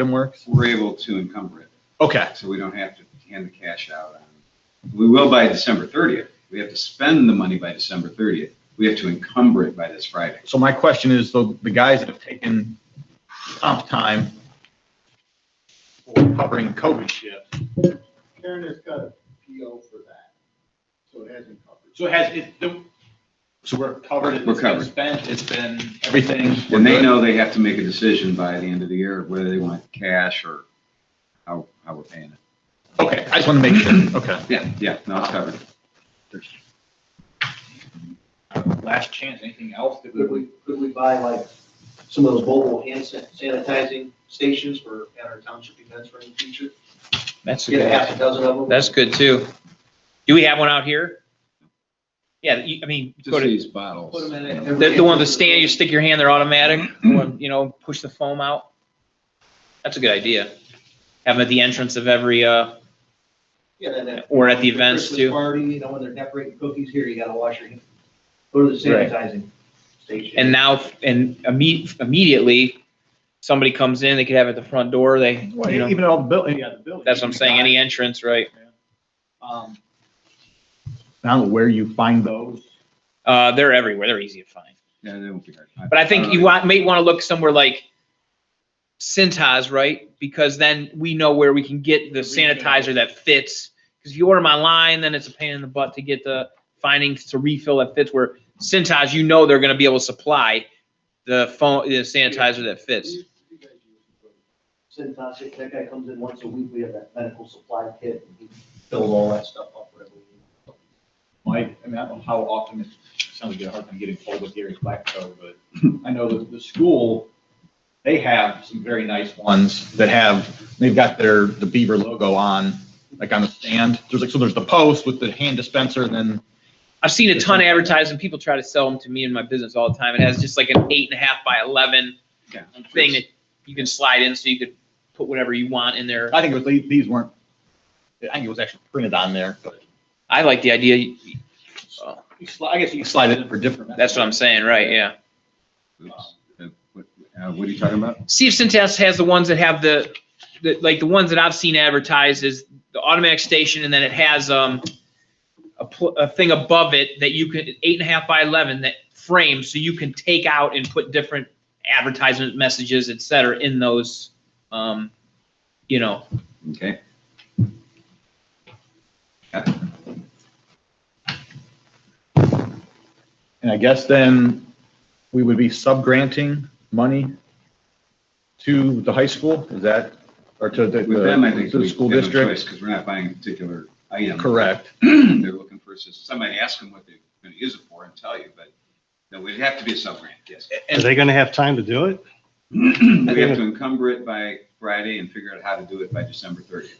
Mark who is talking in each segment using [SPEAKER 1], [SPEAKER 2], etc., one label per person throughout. [SPEAKER 1] item works?
[SPEAKER 2] We're able to encumber it,
[SPEAKER 1] Okay,
[SPEAKER 2] so we don't have to hand the cash out. on- We will by December 30th. We have to spend the money by December 30th. We have to encumber it by this Friday.
[SPEAKER 1] so my question is, the, the guys that have taken comp time for covering COVID shift,
[SPEAKER 3] Karen has got a PO for that, so it hasn't covered.
[SPEAKER 4] So it has, it, the- so we're covered, it's
[SPEAKER 2] We're
[SPEAKER 4] been
[SPEAKER 2] covered.
[SPEAKER 4] spent, it's been
[SPEAKER 1] everything. we're
[SPEAKER 2] And they
[SPEAKER 1] good?
[SPEAKER 2] know they have to make a decision by the end of the year, whether they want cash or how, how we're paying it.
[SPEAKER 1] Okay, I just want to make sure, okay.
[SPEAKER 2] Yeah, yeah, no, it's covered.
[SPEAKER 4] last chance, anything else that we
[SPEAKER 5] Could
[SPEAKER 4] would,
[SPEAKER 5] we, could we buy like some of those mobile hand san- sanitizing stations for at our township events for in the future?
[SPEAKER 6] That's a
[SPEAKER 5] Get a
[SPEAKER 6] good,
[SPEAKER 5] half a dozen of them?
[SPEAKER 6] that's good too. Do we have one out here? Yeah, you- I mean, go
[SPEAKER 2] Just
[SPEAKER 6] to,
[SPEAKER 2] these bottles.
[SPEAKER 5] Put 'em in it.
[SPEAKER 6] the, the one with the stand, you stick your hand, they're automatic, the one, you know, push the foam out. That's a good idea. Have them at the entrance of every, uh,
[SPEAKER 5] Yeah, and then-
[SPEAKER 6] or at the events
[SPEAKER 5] Christmas
[SPEAKER 6] too.
[SPEAKER 5] Party, you know, when they're decorating cookies here, you gotta wash your hands. Go to the
[SPEAKER 6] Right.
[SPEAKER 5] sanitizing station.
[SPEAKER 6] And now, and imme- immediately, somebody comes in, they could have it at the front door, they, you know,
[SPEAKER 1] Even all the building, yeah, the building.
[SPEAKER 6] that's what I'm saying, any entrance, right?
[SPEAKER 1] Um, I don't know where you find those.
[SPEAKER 6] Uh, they're everywhere, they're easy to find.
[SPEAKER 2] Yeah, they won't be hard.
[SPEAKER 6] But I think you
[SPEAKER 2] don't
[SPEAKER 6] want, may want to look somewhere like Cintas, right? Because then we know where we can get the sanitizer that fits. Because if you order them online, then it's a pain in the butt to get the findings to refill that fits where Cintas, you know, they're going to be able to supply the phone, the sanitizer that fits.
[SPEAKER 5] Cintas, that guy comes in once a week, we have that medical supply kit, and he fills all that stuff up, whatever. we need.
[SPEAKER 4] Mike, I mean, I don't know how often, it sounds like you have a hard time getting hold of Gary Blacko, but I know that the school, they have some very nice ones.
[SPEAKER 1] Ones that have, they've got their, the Beaver logo on, like on the stand. There's like, so there's the post with the hand dispenser and then
[SPEAKER 6] I've seen a ton of advertising. People try to sell them to me in my business all the time. It has just like an eight and a half by 11
[SPEAKER 2] Yeah.
[SPEAKER 6] thing that you can slide in so you could put whatever you want in there.
[SPEAKER 1] I think it was, these these weren't, I think it was actually printed on there, but
[SPEAKER 6] I like the idea.
[SPEAKER 4] You sli- I guess you can
[SPEAKER 1] slide it in for different.
[SPEAKER 6] That's what I'm saying, right? Yeah.
[SPEAKER 2] Oops. Uh, What uh, what are you talking about?
[SPEAKER 6] See if Centess has the ones that have the, the, like the ones that I've seen advertised is the automatic station and then it has, um, a, pl- a thing above it that you can, eight and a half by 11 that frames, so you can take out and put different advertisement messages, et cetera, in those, um, you know,
[SPEAKER 2] Okay.
[SPEAKER 1] And I guess then we would be subgranting money to the high school, is that, or to the,
[SPEAKER 2] With them, I think
[SPEAKER 1] Uh, the
[SPEAKER 2] we
[SPEAKER 1] school
[SPEAKER 2] have no
[SPEAKER 1] district?
[SPEAKER 2] choice because we're not buying a particular item.
[SPEAKER 1] Correct.
[SPEAKER 2] They're looking for, assistance. somebody ask them what they're going to use it for and tell you, but no, we'd have to be a sub-grant, yes.
[SPEAKER 7] Are they gonna have time to do it?
[SPEAKER 2] We have to encumber it by Friday and figure out how to do it by December 30th.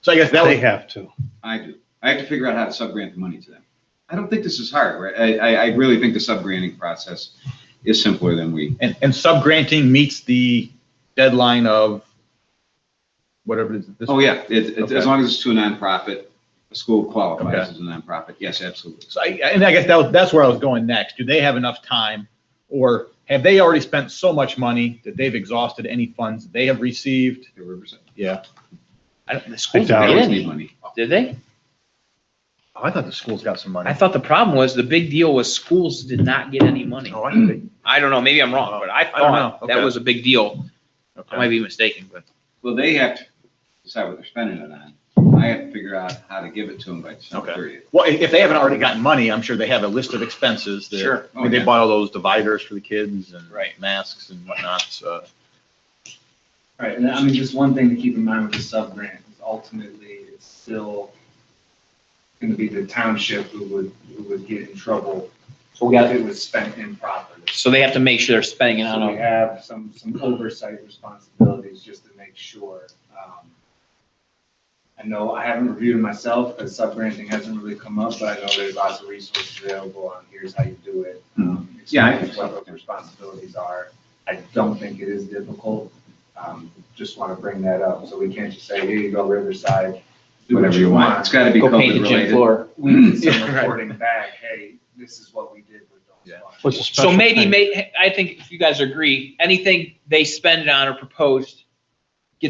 [SPEAKER 1] So I guess that
[SPEAKER 7] They
[SPEAKER 1] was,
[SPEAKER 7] have to.
[SPEAKER 2] I do. I have to figure out how to sub-grant the money to them. I don't think this is hard, right? I, I, I really think the sub-granting process is simpler than we,
[SPEAKER 1] and, and subgranting meets the deadline of whatever it is. this-
[SPEAKER 2] oh, yeah, it, it-
[SPEAKER 1] Okay.
[SPEAKER 2] as long as it's to a nonprofit, a school qualifies
[SPEAKER 1] Okay.
[SPEAKER 2] as a nonprofit, yes, absolutely.
[SPEAKER 1] So I, and I guess that was, that's where I was going next. Do they have enough time? Or have they already spent so much money that they've exhausted any funds they have received?
[SPEAKER 2] They were percent-
[SPEAKER 1] Yeah.
[SPEAKER 6] I don't, the
[SPEAKER 7] I
[SPEAKER 6] schools
[SPEAKER 2] They
[SPEAKER 7] doubt
[SPEAKER 2] always
[SPEAKER 7] it.
[SPEAKER 2] need money.
[SPEAKER 6] did they?
[SPEAKER 1] Oh, I thought the school's got some money.
[SPEAKER 6] I thought the problem was, the big deal was schools did not get any money.
[SPEAKER 1] Oh, I think they-
[SPEAKER 6] I don't know, maybe I'm wrong, but I
[SPEAKER 1] I don't know,
[SPEAKER 6] thought that
[SPEAKER 1] okay.
[SPEAKER 6] was a big deal. I
[SPEAKER 1] okay.
[SPEAKER 6] might be mistaken, but.
[SPEAKER 2] Well, they have to decide what they're spending it on. I have to figure out how to give it to them by December
[SPEAKER 1] Okay.
[SPEAKER 2] thirtieth.
[SPEAKER 1] Well, i- if they haven't already gotten money, I'm sure they have a list of expenses that.
[SPEAKER 6] Sure.
[SPEAKER 1] I mean, they
[SPEAKER 2] Oh, yeah.
[SPEAKER 1] bought all those dividers for the kids and.
[SPEAKER 6] Right.
[SPEAKER 1] Masks and whatnot, so.
[SPEAKER 8] Right, and I mean, just one thing to keep in mind with the sub grant is ultimately it's still going to be the township who would, who would get in trouble
[SPEAKER 6] So we
[SPEAKER 8] if it was spent improperly.
[SPEAKER 6] So they have to make sure they're spending it on
[SPEAKER 8] So we
[SPEAKER 6] a
[SPEAKER 8] have some, some oversight responsibilities just to make sure. um, I know I haven't reviewed it myself because subgranting hasn't really come up, but I know there's lots of resources available on here's how you do it. um,
[SPEAKER 2] Hmm. Yeah, I
[SPEAKER 8] explain
[SPEAKER 2] think so.
[SPEAKER 8] What those responsibilities are. I don't think it is difficult. Um, Just want to bring that up. So we can't just say, here you go Riverside, do what
[SPEAKER 2] Whatever you want. It's gotta be
[SPEAKER 6] go paint
[SPEAKER 2] COVID
[SPEAKER 6] the gym
[SPEAKER 2] related.
[SPEAKER 6] floor.
[SPEAKER 8] We need some
[SPEAKER 6] Yeah, right.
[SPEAKER 8] reporting back, hey, this is what we did with
[SPEAKER 1] Yeah.
[SPEAKER 8] those funds.
[SPEAKER 7] What's a
[SPEAKER 6] So
[SPEAKER 7] special
[SPEAKER 6] maybe,
[SPEAKER 7] thing?
[SPEAKER 6] may, I think if you guys agree, anything they spend it on or proposed